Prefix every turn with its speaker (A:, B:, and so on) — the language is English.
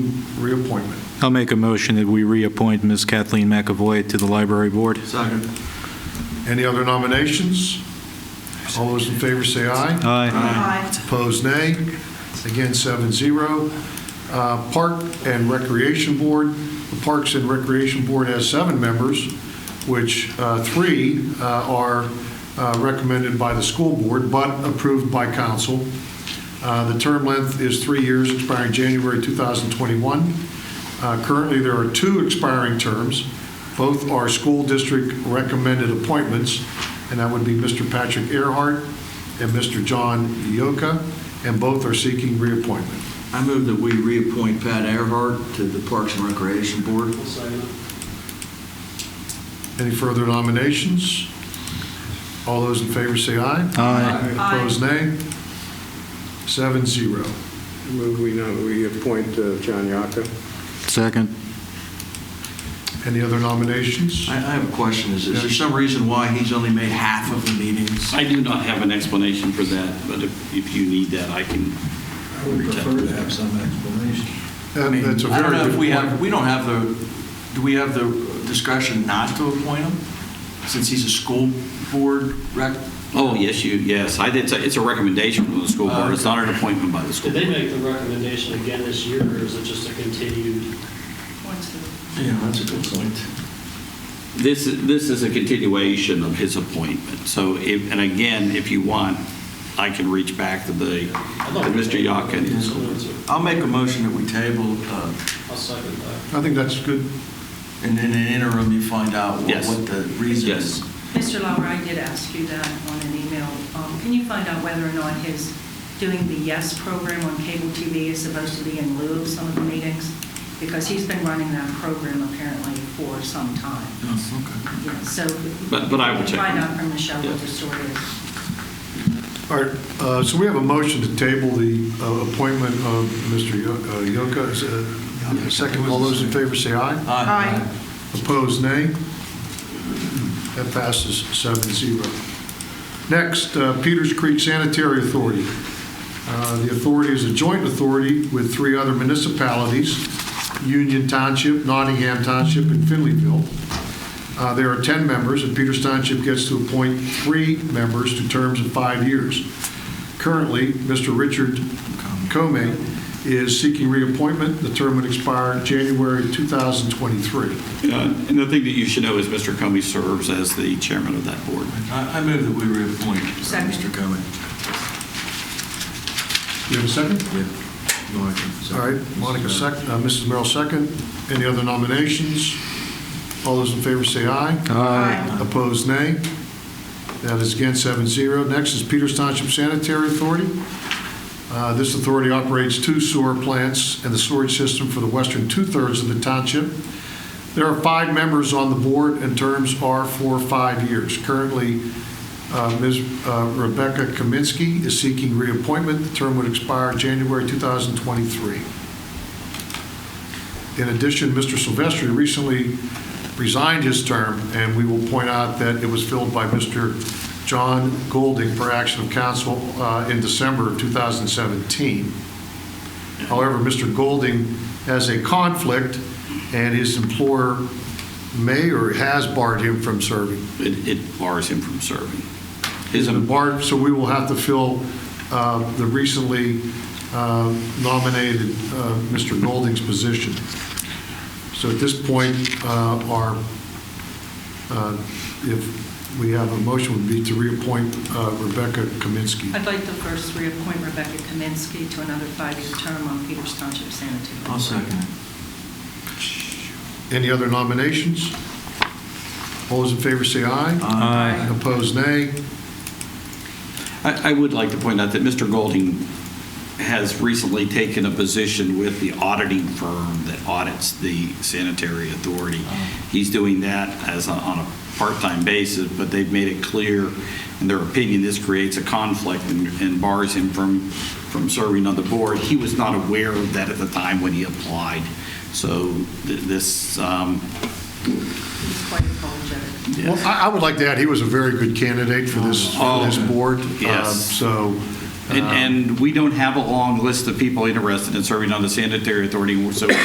A: reappointment.
B: I'll make a motion that we reappoint Ms. Kathleen McAvoy to the Library Board.
C: Second.
A: Any other nominations? All those in favor say aye.
B: Aye.
D: Aye.
A: Opposed, nay. Again, seven zero. Uh, Park and Recreation Board, the Parks and Recreation Board has seven members, which uh, three uh, are uh, recommended by the school board, but approved by council. Uh, The term length is three years, expiring January 2021. Uh, Currently, there are two expiring terms. Both are school district recommended appointments, and that would be Mr. Patrick Earhart and Mr. John Yoka, and both are seeking reappointment.
C: I move that we reappoint Pat Earhart to the Parks and Recreation Board.
A: Any further nominations? All those in favor say aye.
B: Aye.
D: Aye.
A: Opposed, nay. Seven zero.
E: Move we know, we appoint uh, John Yocca.
B: Second.
A: Any other nominations?
C: I I have a question. Is is there some reason why he's only made half of the meetings?
F: I do not have an explanation for that, but if, if you need that, I can.
G: I would prefer to have some explanation.
C: I
A: That-
C: mean,
A: That's a
C: I don't
A: very
C: know if
A: good
C: we
A: point.
C: have, we don't have the, do we have the discretion not to appoint him? Since he's a school board rec?
F: Oh, yes, you, yes, I did, say- it's a recommendation from the school board, it's not an appointment by the school
H: Did they
F: board.
H: make the recommendation again this year, or is it just a continued?
C: Yeah, that's a good point.
F: This, is- this is a continuation of his appointment, so if, and again, if you want, I can reach back to the, to Mr. Yockin.
C: I'll make a motion that we table, uh,
H: I'll second that.
A: I think that's good.
C: and in the interim, you find out what
F: Yes.
C: what the reason
F: Yes.
C: is.
D: Mr. Lauer, I did ask you that on an email. Um, Can you find out whether or not his doing the YES program on cable TV is supposed to be in lieu of some of the meetings? Because he's been running that program apparently for some time.
G: Oh,
D: Yeah, So.
F: But- but I will check.
D: Find out from Michelle what
F: Yeah.
D: the story is.
A: All right, uh, so we have a motion to table the uh, appointment of Mr. Yo- uh, Yoka. Is, uh, Second, all those in favor say aye.
D: Aye.
A: Opposed, nay. That passes seven zero. Next, uh, Peters Creek Sanitary Authority. Uh, The authority is a joint authority with three other municipalities, Union Township, Nottingham Township, and Finleyville. Uh, There are 10 members, and Peters Township gets to appoint three members to terms of five years. Currently, Mr. Richard Comey is seeking reappointment. The term would expire January 2023.
F: Uh, And the thing that you should know is Mr. Comey serves as the chairman of that board.
C: I I move that we reappoint uh,
D: Second.
C: Mr. Cohen.
A: You have a second?
C: Yeah. Monica,
A: All
C: second.
A: right, Monica, second, uh, Mrs. Merrill, second. Any other nominations? All those in favor say aye.
D: Aye.
A: Opposed, nay. That is again seven zero. Next is Peters Township Sanitary Authority. Uh, This authority operates two sewer plants and the sewage system for the western two-thirds of the township. There are five members on the board, and terms are for five years. Currently, uh, Ms. uh, Rebecca Kaminsky is seeking reappointment. The term would expire January 2023. In addition, Mr. Silvestri recently resigned his term, and we will point out that it was filled by Mr. John Golding for action of council uh, in December of 2017. However, Mr. Golding has a conflict, and his employer may or has barred him from serving.
F: It it bars him from serving. His,
A: Been barred, so we will have to fill uh, the recently uh, nominated uh, Mr. Golding's position. So at this point, uh, our, uh, if we have a motion, would be to reappoint uh, Rebecca Kaminsky.
D: I'd like to first reappoint Rebecca Kaminsky to another five-year term on Peters Township Sanitary.
C: I'll second it.
A: Any other nominations? All those in favor say aye.
B: Aye.
A: Opposed, nay.
F: I I would like to point out that Mr. Golding has recently taken a position with the auditing firm that audits the sanitary authority. He's doing that as a- on a part-time basis, but they've made it clear, in their opinion, this creates a conflict and and bars him from, from serving on the board. He was not aware of that at the time when he applied. So th- this, um,
D: He's quite apologetic.
A: Well,
F: yes.
A: I I would like to add, he was a very good candidate for this, for this
F: Oh,
A: board.
F: yes.
A: Um, So.
F: and
A: um,
F: and we don't have a long list of people interested in serving on the sanitary authority, so